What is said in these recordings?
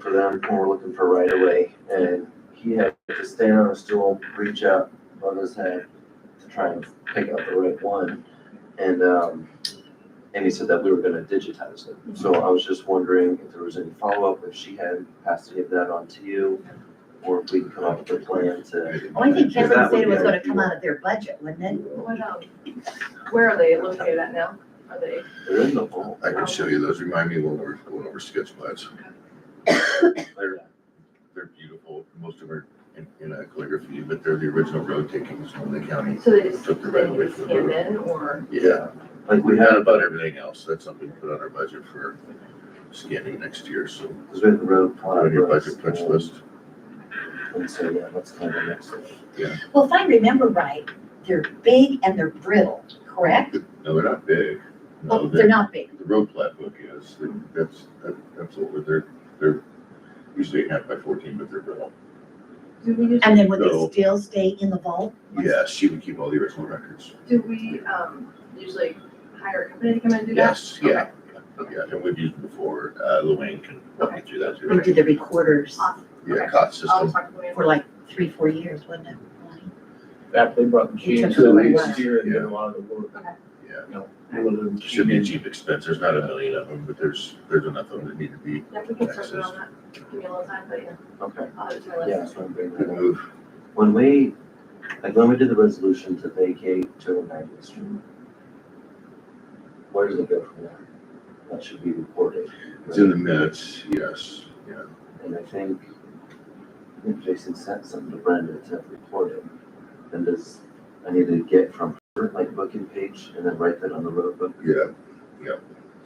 for them when we're looking for right of way. And he had to stand on a stool, reach up on his head to try and pick out the right one. And, um, and he said that we were gonna digitize it. So Mhm. I was just wondering if there was any follow-up, if she had passed any of that on to you, or if we can come up with a plan to. Well, I think Kevin That would said it was be gonna come out of their budget, wouldn't it? What, um, where are they located at now? Are they, There is no hole. I can show you those, remind me when we're going over sketch plans. They're, they're beautiful, most of them are in, in uh, calligraphy, but they're the original road takings from the county. so they just, Took the they right away just from the came road. in or? Yeah, Like we we had have, about everything else, that's something we put on our budget for scanning next year, so. because we have the road. put it plot On your roads, budget punch and- list, And so, yeah, that's kind of the next thing. Well, if I remember right, they're big and they're brittle, correct? no, they're not big, Well, no, they're they're, not big. the road plat book is, that's, that- that's what we're, they're, they're usually eight and a half by fourteen, but they're brittle. Do we, And then would No. they still stay in the vault? once- Yeah, she would keep all the original records. do we, um, usually hire a company to come and do that? Yes, yeah, yeah, and we've used it before, uh, Luann can help you through that They too. did the recorders Awesome. Yeah, COT I'll system, talk to Luann. for like three, four years, wasn't it? Lonnie? fact, they brought It machines took a in little last year and did a lot of the work. yeah, Little should be a machines. cheap expense, there's not a million of them, but there's, there's enough of them that need to be. Yeah, we can circle on that. Give me a little time, but yeah, Okay, I'll add it to my list. yeah, so I'm bringing Good that up. move. When we, like, when we did the resolution to vacate two oh nine East Street, where does it go from there? That should be reported. It's in the minutes, yes, yeah, And I think if Jason sent something to Brenda to report it, then does, I need to get from her, like, booking page and then write that on the road book. yeah,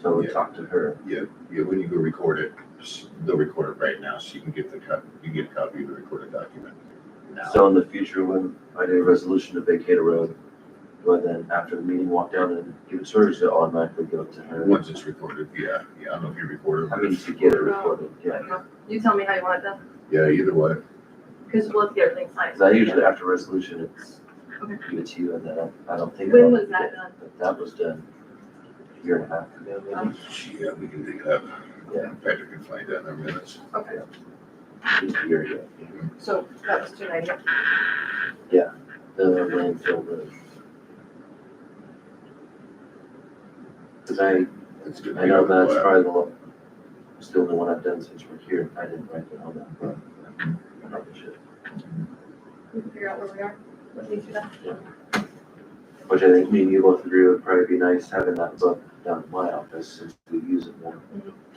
So I would Yeah. talk to her. yeah, when you go record it, s- they'll record it right now, so you can get the co- you can get a copy of the recorded document. Now, So in the future, when I do a resolution to vacate a road, do I then, after the meeting, walk down and give it to her, or does it automatically go to her? once it's recorded, yeah, yeah, I don't know if you record it, I but mean, it's to get it recorded, recorded, yeah. You tell me how you want it done, yeah, either way, because we'll have to get everything signed. Cause I usually after resolution, it's Okay. give it to you and then I- I don't think. When I'll was get that it, done? But that was done a year and a half ago, maybe. yeah, we can dig it up. Oh, Yeah. Patrick can find that in our minutes. Okay, Just a year ago. so that was two ninety. The landfill road. Cause I, It's gonna I be know on the that's web. probably the, lo- still the one I've done since we're here. I didn't write it on that. but I probably should. We can figure out where we are, what needs to be done. Which I think me and you both agree would probably be nice having that book down at my office since we use it more.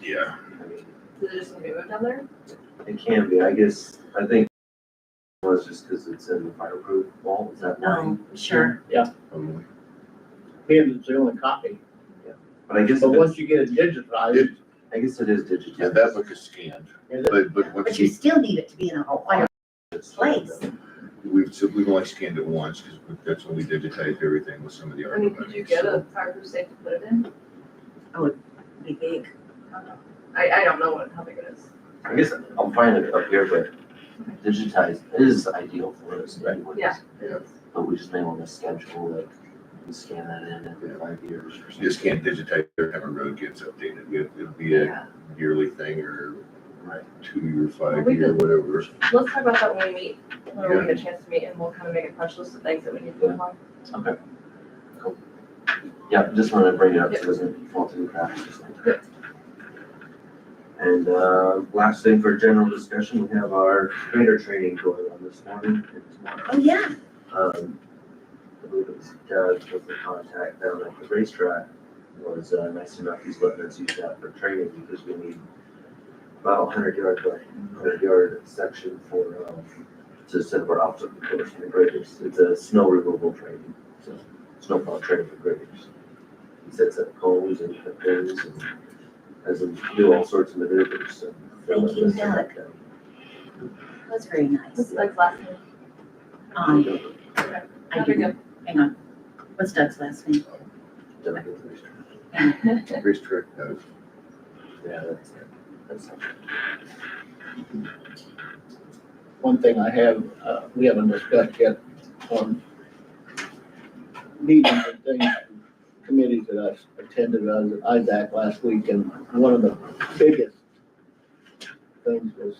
Yeah, I mean, Is it just gonna be moved down there? It can be, I guess, I think it was just because it's in the fireproof wall, is that why? No, sure. um, Him, it's the only copy, But I guess, but it is- once you get it digitized, I guess it is yeah, digitized. that book is scanned, is it- but, but But once you you, still need it to be in a whole fire place. we've, so we've only scanned it once, because that's when we digitized everything with some of the I art. mean, could you get a fireproof safe to put it in? Be big. I don't know. I, I don't know what, how big it is. I guess I'm fine with it up here, but digitized is ideal for us anyways. Yeah. Yeah. But we just may want to schedule that, we scan that in in five years or You just something. can't digitize every time a road gets updated, it, it'll be a yearly thing, or Right. two-year, Well, we five-year, whatever. Let's talk about that when we meet, when we get a chance to meet, and we'll kind of make a punch list of things that we need to move on. Yeah, just wanted to bring it up so it doesn't fall through the cracks. just like that. And uh, last thing for general discussion, we have our trader training going on this morning and tomorrow. Oh, yeah. um, I believe it was Doug was the contact down at the racetrack, was, uh, nice enough, he's letting us use that for training, because we need about hundred yard, by hundred yard section for, um, to set up our obstacle course for the graders, it's a snow removal training, so, snowplow training for graders. He sets up cones and pins and has them do all sorts of maneuvers, so. Thank you, Doug. That's very This nice. is like last name. Um, I That'd be didn't, hang on. What's Doug's last name? Doug at the racetrack. good. Racetrack, uh, Yeah, that's, that's. one thing I have, uh, we haven't discussed yet on meetings and things, committees that uh, I attended, I was at Isaac last week, and one of the biggest things was